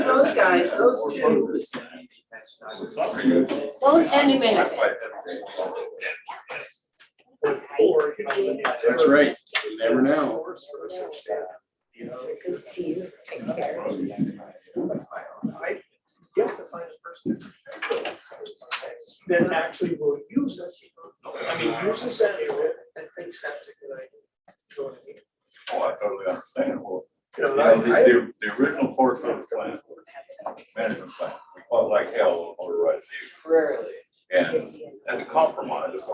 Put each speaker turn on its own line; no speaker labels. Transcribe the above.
Those guys, those two.
Don't send him in.
That's right, you never know.
Good to see you. Take care.
You have to find a person that actually will use us, I mean, uses that area and thinks that's a good idea. You know what I mean?
Oh, I totally understand. Well,
You know,
you
and
know, the,
I- I-
the, the original Forest Service plan, management plan, we fought like hell over right
Rarely.
here. And as a compromise,